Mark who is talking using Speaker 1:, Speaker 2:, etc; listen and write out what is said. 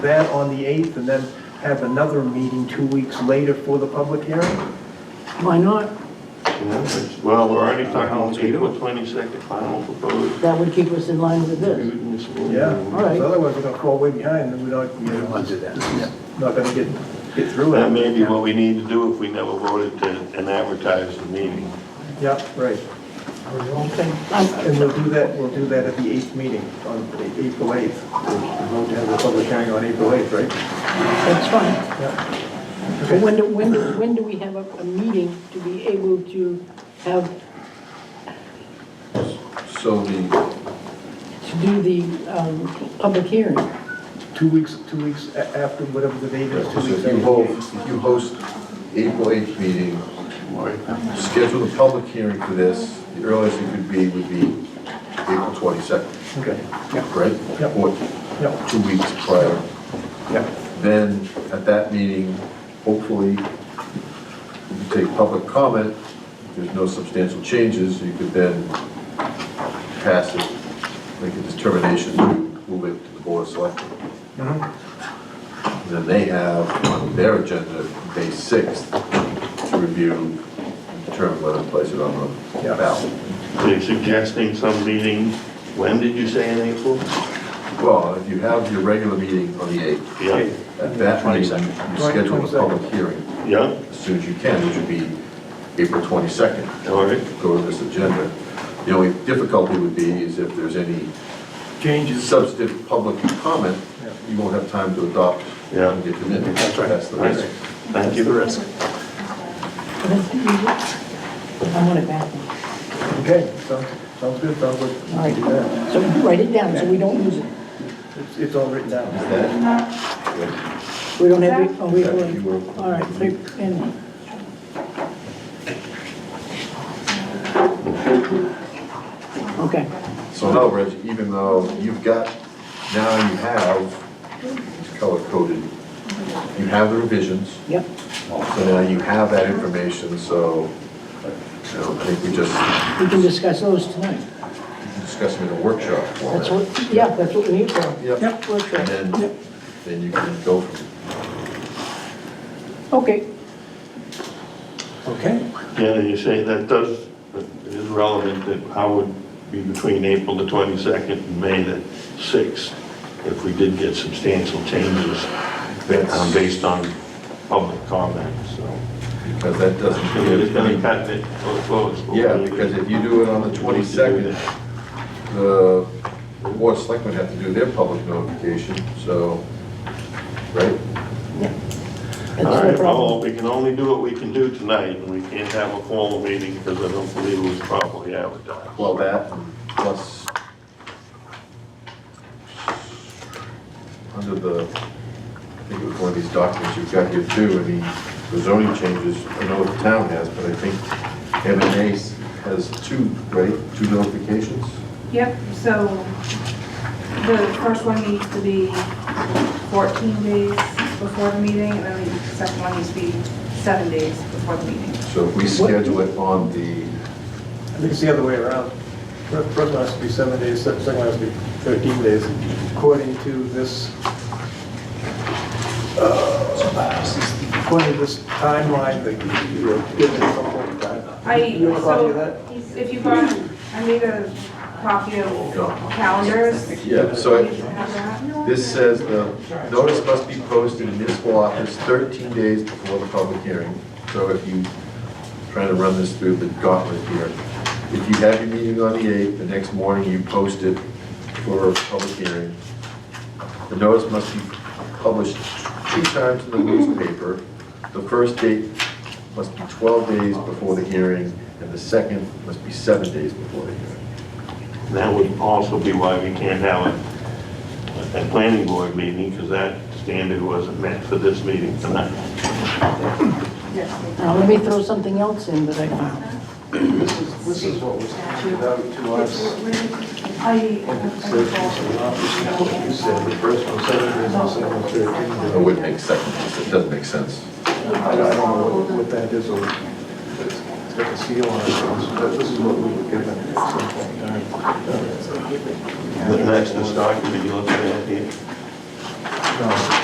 Speaker 1: that on the 8th and then have another meeting two weeks later for the public hearing?
Speaker 2: Why not?
Speaker 3: Well, we're already talking
Speaker 4: Final
Speaker 3: about April
Speaker 4: April.
Speaker 3: twenty-second, final proposed.
Speaker 2: That would keep us in line with this.
Speaker 3: municipal-
Speaker 1: Yeah.
Speaker 2: All right.
Speaker 1: Because Otherwise, we're going to fall way behind and we're not, you know,
Speaker 4: I'll do that, yeah.
Speaker 1: not going to get, get through
Speaker 3: That
Speaker 1: it.
Speaker 3: may be what we need to do if we never voted to, and advertise the meeting.
Speaker 1: Yeah, right.
Speaker 2: Okay. I'm-
Speaker 1: And we'll do that, we'll do that at the 8th meeting on A- April 8th. We're going to have the public hearing on April 8th, right?
Speaker 2: That's fine. But
Speaker 1: Okay.
Speaker 2: when, do- when, do- when do we have a, a meeting to be able to have,
Speaker 5: So the,
Speaker 2: to do the, um, public hearing?
Speaker 1: Two weeks, two weeks a- after whatever the date is,
Speaker 5: so
Speaker 1: two weeks
Speaker 5: if
Speaker 1: after.
Speaker 5: you
Speaker 1: the
Speaker 5: hold,
Speaker 1: meeting.
Speaker 5: if you host April 8th meeting, schedule the public hearing for this, the earliest it could be would be April 22nd,
Speaker 1: Okay, yeah,
Speaker 5: right?
Speaker 1: Yep.
Speaker 5: Or
Speaker 1: yeah,
Speaker 5: two weeks prior.
Speaker 1: yeah.
Speaker 5: Then, at that meeting, hopefully, you can take public comment, If there's no substantial changes, you could then pass it, make a determination, move it to the board of selectmen.
Speaker 1: Mhm.
Speaker 5: Then they have on their agenda, May 6th, to review, and determine whether to place it on the
Speaker 1: Yeah.
Speaker 5: ballot.
Speaker 3: They're suggesting some meeting, when did you say in April?
Speaker 5: Well, if you have your regular meeting on the 8th,
Speaker 3: Yeah,
Speaker 1: Okay.
Speaker 5: at that meeting, you schedule the
Speaker 1: 22nd.
Speaker 5: public hearing
Speaker 3: yeah,
Speaker 5: as soon as you can, which would be April 22nd.
Speaker 3: all right.
Speaker 5: go to this agenda. The only difficulty would be is if there's any
Speaker 1: Changes.
Speaker 5: substantive public comment, you won't have time to adopt
Speaker 3: Yeah.
Speaker 5: and get them in.
Speaker 1: That's right.
Speaker 5: That's the risk.
Speaker 3: Thank you.
Speaker 2: I want it back.
Speaker 1: Okay, sounds, sounds good, sounds good.
Speaker 2: All right. So write it down so we don't lose it.
Speaker 1: It's, it's all written down.
Speaker 5: Is that-
Speaker 2: We don't have, it- oh, we,
Speaker 5: Yeah, you
Speaker 2: will.
Speaker 5: will.
Speaker 2: all right, so- and, okay.
Speaker 5: So no, Reg, even though you've got, now you have, it's color coded, you have the revisions,
Speaker 2: Yep,
Speaker 5: so now you have that information, so you know, I think we just
Speaker 2: we can discuss those tonight.
Speaker 5: discuss them in a workshop format.
Speaker 2: That's what, yeah, that's what we need for.
Speaker 5: Yep.
Speaker 2: Workshop.
Speaker 5: And then, then you can go from
Speaker 2: Okay,
Speaker 1: Okay.
Speaker 3: Yeah, you say that does, it is relevant that how would be between April the 22nd and May the 6th if we did get substantial changes ba- um, based on public comment, so.
Speaker 5: Because that doesn't
Speaker 3: We're just
Speaker 5: give
Speaker 3: gonna
Speaker 5: any,
Speaker 3: cut it close.
Speaker 5: yeah, because if you do it on the 22nd, the board of selectmen have to do their public notification, so, right?
Speaker 2: that's
Speaker 3: All
Speaker 2: no
Speaker 3: right, well,
Speaker 2: problem.
Speaker 3: we can only do what we can do tonight, and we can't have a formal meeting because I don't believe it was properly advertised.
Speaker 5: Well, that plus under the, I think it was one of these documents you've got here too, and the zoning changes, I know the town has, but I think MMA has two, right? Two notifications?
Speaker 6: Yep, so the first one needs to be 14 days before the meeting, and then the second one needs to be seven days before the meeting.
Speaker 5: So if we schedule it on the
Speaker 1: I think it's the other way around. Fir- First one has to be seven days, se- second one has to be 13 days, according to this, uh, according to this timeline that you were given at some point in time.
Speaker 6: I,
Speaker 1: You have a copy of that?
Speaker 6: so if you brought, I made a copy of calendars.
Speaker 5: Yeah, so
Speaker 6: You should
Speaker 5: it-
Speaker 6: have that.
Speaker 5: this says the notice must be posted in municipal office 13 days before the public hearing. So if you, trying to run this through the gauntlet here, if you have your meeting on the 8th, the next morning you post it for a public hearing. The notice must be published two times in the newspaper. The first date must be 12 days before the hearing, and the second must be seven days before the hearing.
Speaker 3: And That would also be why we can't have a, a planning board meeting, because that standard wasn't met for this meeting tonight.
Speaker 2: Now, let me throw something else in that I found.
Speaker 1: This is, this is what was handed out to us. What you said, the first one seven days, the second one 13
Speaker 5: It
Speaker 1: days.
Speaker 5: would make sense, it doesn't make sense.
Speaker 1: I don't I don't know what- what that is, or it's it's got a seal on it, but this is what we were given at some point in time.
Speaker 3: That's the document you're looking at here.
Speaker 1: No.